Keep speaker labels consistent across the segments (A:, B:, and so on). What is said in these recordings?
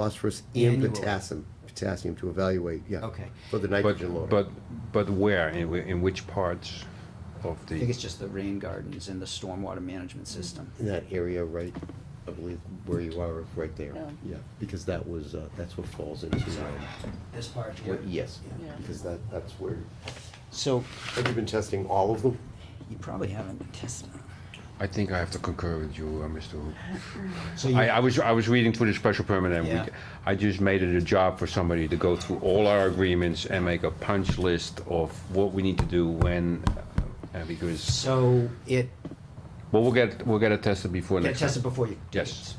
A: phosphorus and
B: Annually.
A: potassium, potassium to evaluate, yeah.
B: Okay.
A: For the
C: But,
A: nitrogen load.
C: but, but where, in, whi- in which parts of
B: I think
C: the,
B: it's just the rain gardens and the stormwater management system.
A: In that area, right, I believe where you are, right there,
D: Yeah.
A: yeah, because that was, uh, that's what falls into, um,
B: This part here?
A: what- yes,
D: Yeah.
A: because that, that's where,
B: So
A: have you been testing all of them?
B: you probably haven't tested.
C: I think I have to concur with you, uh, Mr. Hoop.
B: So
C: I,
B: you,
C: I was, I was reading through the special permit and
B: Yeah.
C: we, I just made it a job for somebody to go through all our agreements and make a punch list of what we need to do when, uh, because,
B: so it,
C: well, we'll get, we'll get it tested before
B: get
C: next. time.
B: tested before you.
C: Yes.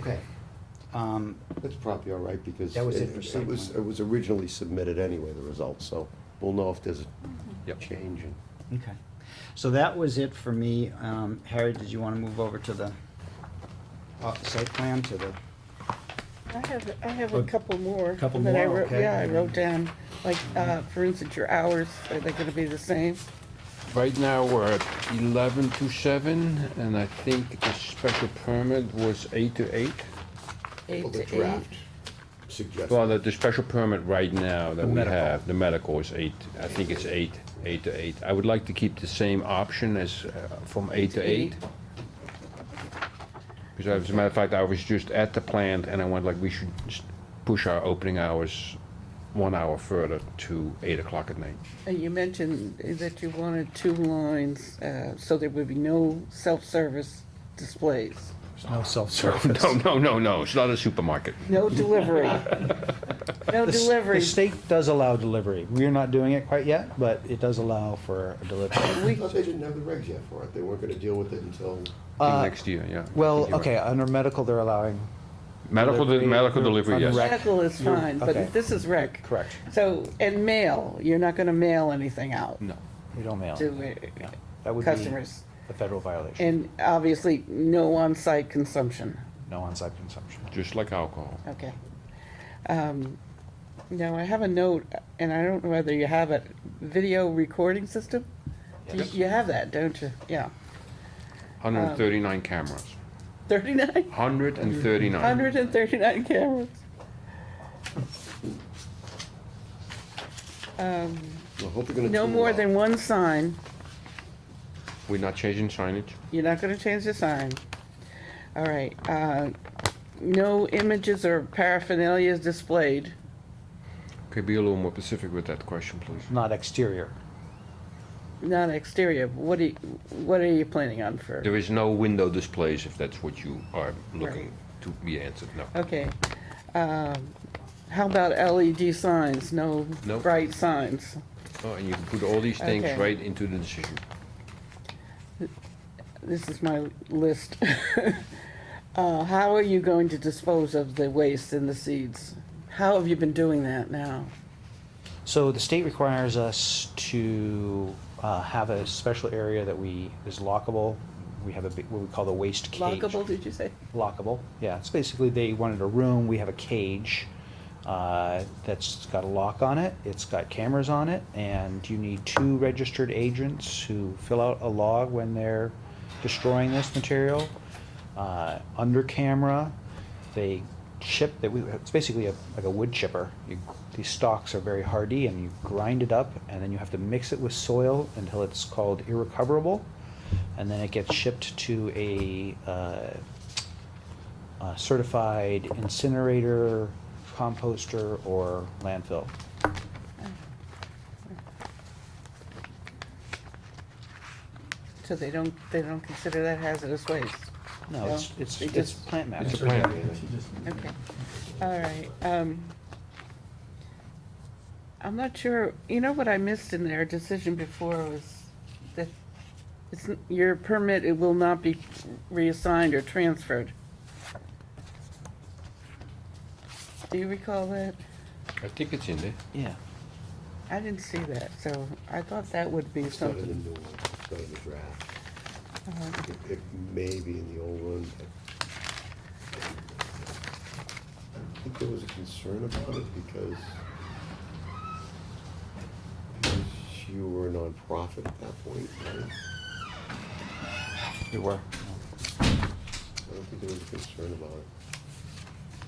B: Okay. Um,
A: That's probably all right, because.
B: That was it for site
A: was,
B: plan.
A: it was originally submitted anyway, the results, so we'll know if there's a
C: Mm-hmm. Yep.
A: change in.
B: okay. So that was it for me. Um, Harry, did you want to move over to the uh, site plan, to the,
D: I have, I have a
B: Oh,
D: couple more.
B: couple
D: that I
B: more,
D: wrote-
B: okay.
D: Yeah, I wrote down, like, uh, for instance, your hours, are they gonna be the same?
C: Right now, we're at eleven to seven, and I think the special permit was eight to eight.
D: Eight
A: Well, the
D: to eight?
A: draft suggested-
C: Well, the, the special permit right now that
B: The
C: we
B: medical.
C: have, the medical is eight, I think it's eight, eight to eight. I would like to keep the same option as, uh, from eight to eight. Because as a matter of fact, I was just at the plant and I went like, we should s- push our opening hours one hour further to eight o'clock at night.
D: And you mentioned that you wanted two lines, uh, so there would be no self-service displays,
E: No self-service.
C: No, no, no, no, it's not a supermarket.
D: no delivery. No
E: The s-
D: delivery.
E: The state does allow delivery. We're not doing it quite yet, but it does allow for a delivery.
A: I thought they didn't have the regs yet for it, they weren't gonna deal with it until.
C: I think
E: Uh,
C: Next year, yeah. I think
E: Well,
C: you're
E: okay,
C: right.
E: under medical, they're allowing,
C: Medical, de-
E: delivery,
C: medical delivery, yes.
E: unrec-
D: Medical is fine,
E: okay.
D: but this is rec.
E: Correct.
D: So, and mail, you're not gonna mail anything out
C: No,
E: we don't mail.
D: to
E: Yeah,
D: uh,
E: That would be
D: customers.
E: a federal violation,
D: And obviously, no on-site consumption.
E: no on-site consumption.
C: just like alcohol.
D: Okay. Um, Now, I have a note, and I don't know whether you have it, video recording system? You-
E: Yes.
D: You have that, don't you? Yeah.
C: Hundred and thirty-nine cameras,
D: 39?
C: hundred and thirty-nine.
D: 139 cameras. Um,
A: I hope they're gonna.
D: No
A: tune it
D: more
A: up.
D: than one sign.
C: We're not changing signage?
D: You're not gonna change the sign. All right, uh, no images or paraphernalia is displayed.
C: Could be a little more specific with that question, please?
E: Not exterior.
D: Not exterior, what do you, what are you planning on for?
C: There is no window displays, if that's what you are looking to be answered, no.
D: Okay, um, how about LED signs, no
C: Nope.
D: bright signs?
C: Oh, And you can put all these things
D: Okay.
C: right into the decision.
D: This is my list. Uh, how are you going to dispose of the waste and the seeds? How have you been doing that now?
E: So the state requires us to uh, have a special area that we, is lockable. We have a, big- what we call the waste cage.
D: Lockable, did you say?
E: lockable. Yeah, it's basically they wanted a room. We have a cage uh, that's got a lock on it. It's got cameras on it, and you need two registered agents who fill out a log when they're destroying this material uh, under camera. They chip that we. It's basically a, like a wood chipper. You, these stalks are very hardy, and you grind it up, and then you have to mix it with soil until it's called irrecoverable, and then it gets shipped to a uh, uh, certified incinerator, composter, or landfill.
D: So they don't, they don't consider that hazardous waste?
E: No, it's,
D: No,
E: it's,
D: it
E: it's
D: just-
E: plant matter.
C: It's a plan.
D: Okay, all right, um. I'm not sure, you know what I missed in their decision before was that it's, n- your permit, it will not be reassigned or transferred. Do you recall that?
C: I think it's in there.
E: Yeah.
D: I didn't see that, so I thought that would be
A: It's not in the
D: something.
A: new one, it's not in the draft. It- It may be in the old one. but- I think there was a concern about it because because you were a nonprofit at that point, right?
E: We were.
A: I don't think there was a concern about it.